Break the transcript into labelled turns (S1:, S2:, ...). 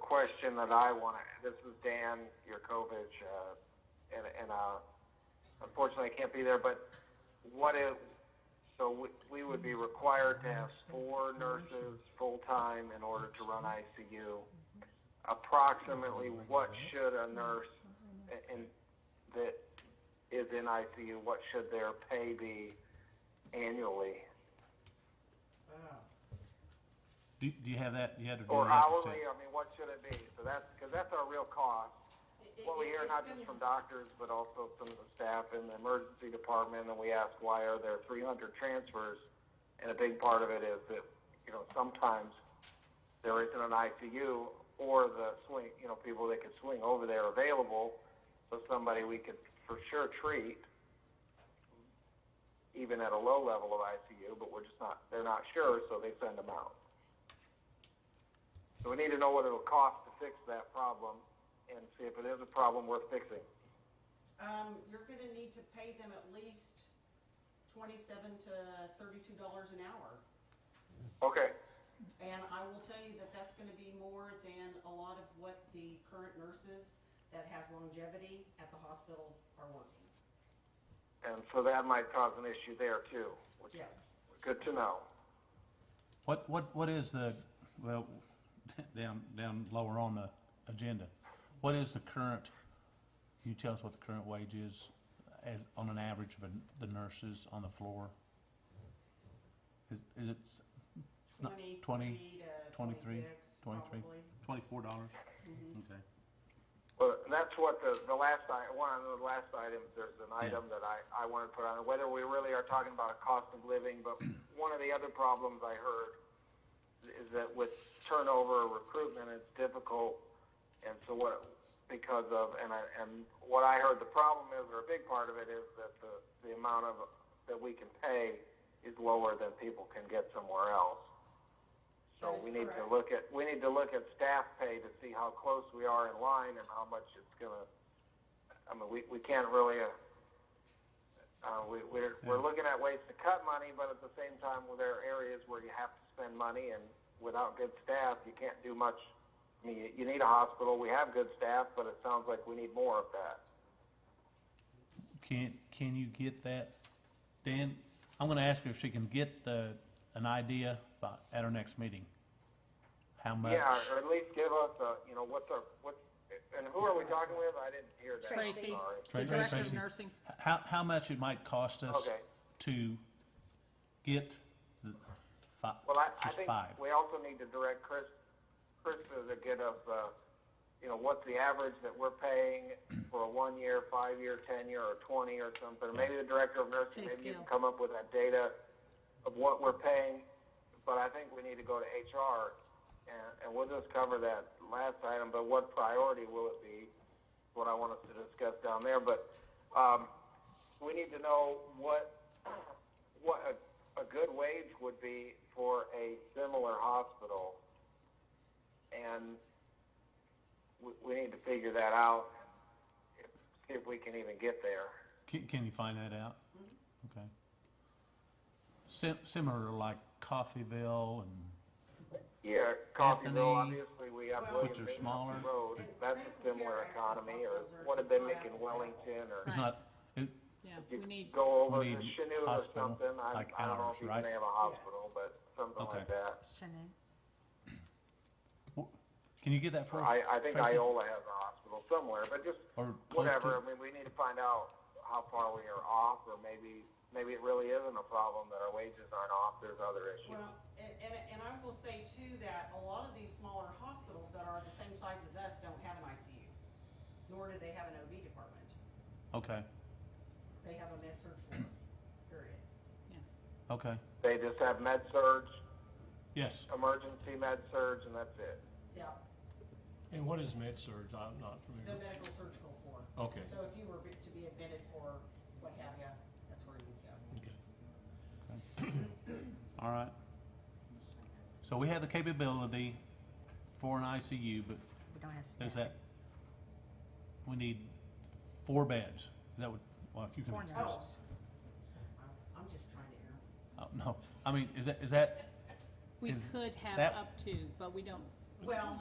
S1: question that I want to. This is Dan Yurkovich, uh, and, and uh, unfortunately I can't be there. But what if? So we, we would be required to have four nurses full time in order to run ICU. Approximately, what should a nurse in, in that is in ICU? What should their pay be annually?
S2: Do, do you have that? You had to do
S1: Or
S2: that to
S1: hourly,
S2: say-
S1: I mean, what should it be? So that's, because that's our real cost. What we hear not just from doctors, but also some of the staff in the emergency department, and we ask why are there three hundred transfers? And a big part of it is that, you know, sometimes there isn't an ICU or the swing, you know, people that could swing over there available. So somebody we could for sure treat, even at a low level of ICU, but we're just not, they're not sure, so they send them out. So we need to know what it'll cost to fix that problem and see if it is a problem worth fixing.
S3: Um, you're gonna need to pay them at least twenty-seven to thirty-two dollars an hour.
S1: Okay,
S3: And I will tell you that that's gonna be more than a lot of what the current nurses that has longevity at the hospital are working.
S1: and so that might cause an issue there too, which is
S3: Yes.
S1: good to know.
S2: What, what, what is the, well, down, down lower on the agenda, what is the current, can you tell us what the current wage is as, on an average of the nurses on the floor? Is, is it s- Not-
S3: Twenty-three to
S2: 23,
S3: twenty-six,
S2: 23.
S3: probably.
S2: Twenty-four dollars.
S1: Mm-hmm.
S2: Okay.
S1: But that's what the, the last I, one of the last items, there's an item that I, I want to put on, whether we really are talking about a cost of living, but one of the other problems I heard is that with turnover or recruitment, it's difficult, and so what, because of, and I, and what I heard the problem is, or a big part of it is that the, the amount of, that we can pay is lower than people can get somewhere else. So
S3: That is
S1: we need to
S3: correct.
S1: look at, we need to look at staff pay to see how close we are in line and how much it's gonna, I mean, we, we can't really, uh, uh, we, we're, we're looking at ways to cut money, but at the same time, well, there are areas where you have to spend money and without good staff, you can't do much. I mean, you, you need a hospital, we have good staff, but it sounds like we need more of that.
S2: Can, can you get that? Dan, I'm gonna ask her if she can get the, an idea by, at our next meeting. How much?
S1: Yeah, or at least give us a, you know, what's our, what's, and who are we talking with? I didn't hear that, I'm
S4: Tracy.
S1: sorry.
S4: The
S2: Tracy.
S4: director of
S2: Tracy.
S4: nursing,
S2: How, how much it might cost us
S1: Okay.
S2: to get the fi-
S1: Well, I, I
S2: just
S1: think
S2: five?
S1: we also need to direct Chris, Chris to get us, uh, you know, what's the average that we're paying for a one-year, five-year, ten-year, or twenty or something. Maybe the director of nursing,
S4: Pay
S1: maybe you can
S4: scale.
S1: come up with that data of what we're paying. But I think we need to go to HR, and, and we'll just cover that last item, but what priority will it be? is What I want us to discuss down there, but, um, we need to know what, what a, a good wage would be for a similar hospital. And we, we need to figure that out, and see if we can even get there.
S2: Can, can you find that out?
S4: Mm-hmm.
S2: Okay. Sim- similar to like Coffeyville and,
S1: Yeah, Coffeyville,
S2: Anthony,
S1: obviously, we have William
S2: Which are
S1: Binghamton
S2: smaller.
S1: Road,
S3: And
S1: that's
S3: critical
S1: a similar
S3: care access
S1: economy, or
S3: hospitals are-
S1: what did they
S3: it's
S1: make
S3: not
S1: in
S3: access.
S1: Wellington, or
S2: it's
S4: Right.
S2: not, it,
S4: yeah,
S1: you
S4: we need,
S1: go over
S2: we
S1: to
S2: need
S1: Chanute or
S2: hospital,
S1: something, I,
S2: like
S1: I don't know
S2: ours,
S1: if you
S2: right?
S1: can have a hospital, but something
S2: Okay.
S1: like that.
S2: wh- can you get that for us?
S1: I, I think
S2: Tracy?
S1: Iola has a hospital somewhere, but just
S2: Or close
S1: whatever, I
S2: to-
S1: mean, we need to find out how far we are off, or maybe, maybe it really isn't a problem that our wages aren't off, there's other issues.
S3: Well, and, and, and I will say too that a lot of these smaller hospitals that are the same size as us don't have an ICU, nor do they have an OB department.
S2: Okay,
S3: They have a med surg floor, period.
S2: okay,
S1: They just have med surge,
S2: yes.
S1: emergency med surge, and that's it.
S3: Yeah,
S5: And what is med surge? I'm not
S3: the
S5: familiar.
S3: medical surgical floor.
S5: Okay,
S3: So if you were to be admitted for what have you, that's where you'd go.
S5: okay.
S2: All right. So we have the capability for an ICU, but
S4: We don't have
S2: there's
S4: staff.
S2: that, we need four beds. Is that what, well, if you can.
S4: Four
S2: express-
S1: Oh.
S4: nurses.
S3: I'm- I'm just trying to air.
S2: Oh, no, I mean, is that, is that
S4: We
S2: Is
S4: could have
S2: that-
S4: up to, but we don't,
S3: Well,